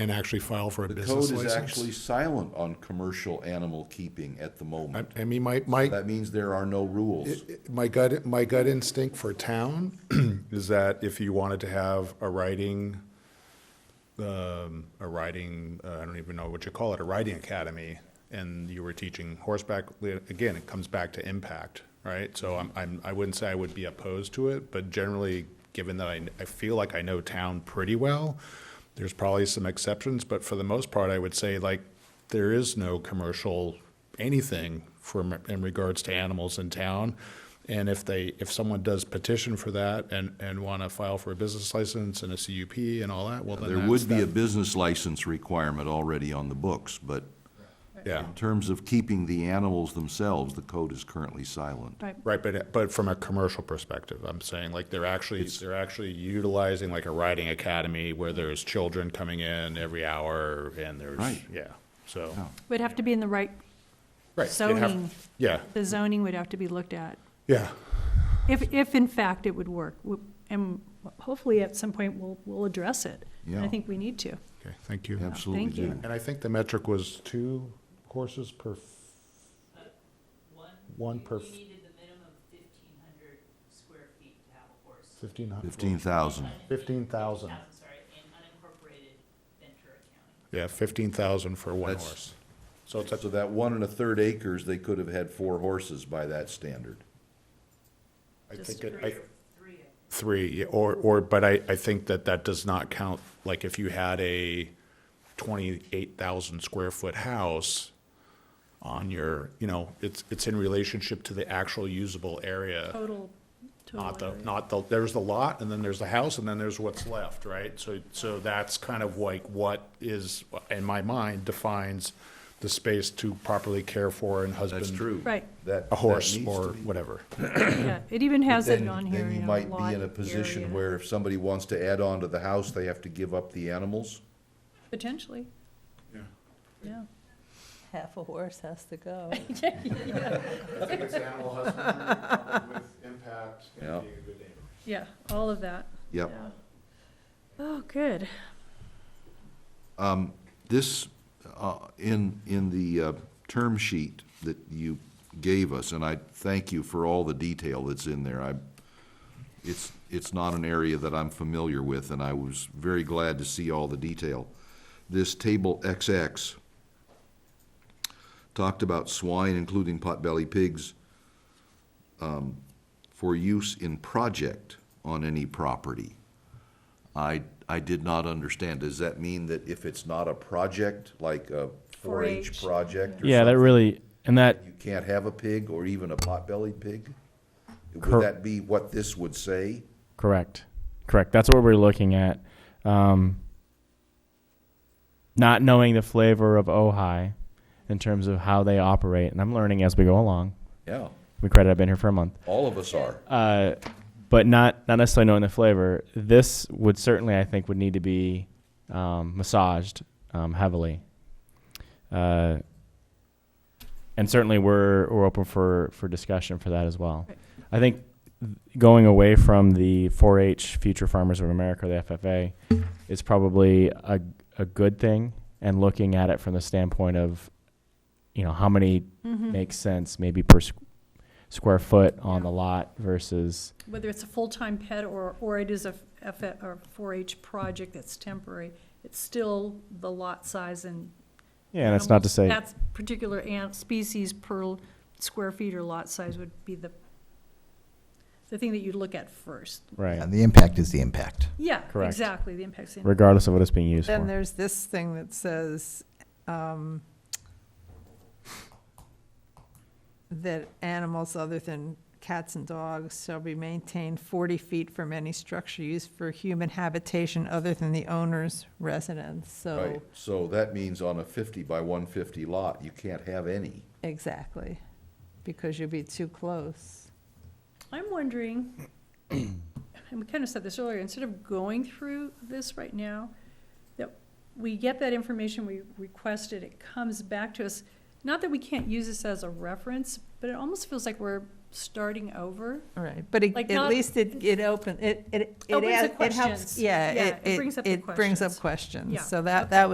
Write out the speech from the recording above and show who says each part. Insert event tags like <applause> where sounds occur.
Speaker 1: and actually file for a
Speaker 2: The
Speaker 1: business
Speaker 2: code is
Speaker 1: license.
Speaker 2: actually silent on commercial animal keeping at the
Speaker 1: I,
Speaker 2: moment.
Speaker 1: I mean, my, my,
Speaker 2: That means there are no rules.
Speaker 1: my gut, my gut instinct for town <clears throat> is that if you wanted to have a riding, um, a riding, uh, I don't even know what you call it, a riding academy, and you were teaching horseback, li- again, it comes back to impact, right? So I'm, I'm, I wouldn't say I would be opposed to it, but generally, given that I, I feel like I know town pretty well, there's probably some exceptions, but for the most part, I would say like, there is no commercial anything from, in regards to animals in town. And if they, if someone does petition for that and, and want to file for a business license and a CUP and all that, well, then
Speaker 2: There
Speaker 1: that's-
Speaker 2: would be
Speaker 1: that-
Speaker 2: a business license requirement already on the books, but
Speaker 1: Yeah,
Speaker 2: in terms of keeping the animals themselves, the code is currently silent.
Speaker 3: Right.
Speaker 1: right, but, but from a commercial perspective, I'm saying, like, they're actually, they're actually utilizing like a riding academy where there's children coming in every hour and there's,
Speaker 2: Right.
Speaker 1: yeah, so.
Speaker 3: Would have to be in the right,
Speaker 1: Right, they'd have-
Speaker 3: Zoning.
Speaker 1: Yeah,
Speaker 3: the zoning would have to be looked at,
Speaker 1: yeah,
Speaker 3: if, if in fact it would work. W- And hopefully at some point we'll, we'll address it. And I
Speaker 2: Yeah.
Speaker 3: think we need to.
Speaker 1: okay, thank you.
Speaker 2: Absolutely
Speaker 3: Thank you.
Speaker 2: do.
Speaker 1: And I think the metric was two horses per, f-
Speaker 4: One.
Speaker 1: One
Speaker 4: we-
Speaker 1: per f-
Speaker 4: We needed the minimum of fifteen hundred square feet to have a horse.
Speaker 1: 1,500.
Speaker 2: Fifteen thousand.
Speaker 1: Fifteen thousand.
Speaker 4: Thousand, sorry, in unincorporated Ventura County.
Speaker 1: Yeah, 15,000 for one
Speaker 2: That's-
Speaker 1: horse. So it's,
Speaker 2: So
Speaker 1: a-
Speaker 2: that one and a third acres, they could have had four horses by that standard.
Speaker 1: I
Speaker 3: Just
Speaker 1: think, it- I,
Speaker 4: Three or- Three of them.
Speaker 1: three, yeah, or, or, but I, I think that that does not count, like, if you had a 28,000 square foot house on your, you know, it's, it's in relationship to the actual usable area,
Speaker 3: Total,
Speaker 1: not
Speaker 3: total
Speaker 1: the,
Speaker 3: area.
Speaker 1: not the, there's the lot, and then there's the house, and then there's what's left, right? So, so that's kind of like what is, in my mind, defines the space to properly care for and husband.
Speaker 3: Right,
Speaker 2: That.
Speaker 1: A horse
Speaker 2: that needs to
Speaker 1: or
Speaker 2: be-
Speaker 1: whatever.
Speaker 3: yeah, it even has it
Speaker 2: Then-
Speaker 3: on here,
Speaker 2: Then
Speaker 3: you
Speaker 2: you
Speaker 3: know,
Speaker 2: might
Speaker 3: lot
Speaker 2: be in a position
Speaker 3: area.
Speaker 2: where if somebody wants to add on to the house, they have to give up the animals.
Speaker 3: Potentially. Yeah.
Speaker 5: Half a horse has to go.
Speaker 1: I think it's animal husbandry with impact
Speaker 2: Yeah.
Speaker 1: and being a good neighbor.
Speaker 3: Yeah, all of that.
Speaker 2: Yep.
Speaker 3: Yeah. Oh, good.
Speaker 2: This, uh, in, in the uh, term sheet that you gave us, and I thank you for all the detail that's in there, I, it's, it's not an area that I'm familiar with, and I was very glad to see all the detail. This table XX talked about swine, including potbelly pigs, um, for use in project on any property. I, I did not understand. Does that mean that if it's not a project, like a 4-H
Speaker 3: 4-H,
Speaker 2: project or
Speaker 6: Yeah, that
Speaker 2: something,
Speaker 6: really and that
Speaker 2: you can't have a pig or even a potbelly pig? Would
Speaker 6: Cor-
Speaker 2: that be what this would say?
Speaker 6: correct, correct. That's what we're looking at. Um, not knowing the flavor of Ojai in terms of how they operate, and I'm learning as we go along.
Speaker 2: Yeah,
Speaker 6: We credit I've been here for a month,
Speaker 2: all of us are.
Speaker 6: uh, but not not necessarily knowing the flavor. This would certainly, I think, would need to be um, massaged um, heavily. Uh, and certainly we're we're open for for discussion for that as well.
Speaker 3: Right.
Speaker 6: I think th- going away from the 4-H Future Farmers of America, the FFA, is probably a a good thing. And looking at it from the standpoint of, you know, how many makes sense maybe per squ- square foot on
Speaker 3: Mm-hmm. Yeah.
Speaker 6: the lot versus
Speaker 3: Whether it's a full-time pet or, or it is a F, or 4-H project that's temporary, it's still the lot size and.
Speaker 6: yeah. And that's not to
Speaker 3: animals-
Speaker 6: say
Speaker 3: That's particular ant species per l- square feet or lot size would be the, the thing that you'd look at first.
Speaker 6: right,
Speaker 7: And the impact is the impact.
Speaker 3: Yeah,
Speaker 6: Correct.
Speaker 3: exactly, the impact's in.
Speaker 6: regardless of what it's being used
Speaker 5: Then
Speaker 6: for.
Speaker 5: there's this thing that says, um, that animals other than cats and dogs shall be maintained forty feet from any structure used for human habitation other than the owner's residence, so,
Speaker 2: Right, so that means on a fifty by one fifty lot, you can't have any.
Speaker 5: exactly, because you'd be too close.
Speaker 3: I'm wondering, <clears throat> and we kind of said this earlier, instead of going through this right now, that we get that information, we request it, it comes back to us. Not that we can't use this as a reference, but it almost feels like we're starting over.
Speaker 5: All right, but it-
Speaker 3: Like
Speaker 5: at
Speaker 3: not-
Speaker 5: least it, it open, it, it. it
Speaker 3: Opens
Speaker 5: adds-
Speaker 3: up
Speaker 5: it helps-
Speaker 3: questions.
Speaker 5: Yeah,
Speaker 3: Yeah,
Speaker 5: it,
Speaker 3: it brings up
Speaker 5: it,
Speaker 3: the
Speaker 5: it brings up
Speaker 3: questions. Yeah,
Speaker 5: questions, so that, that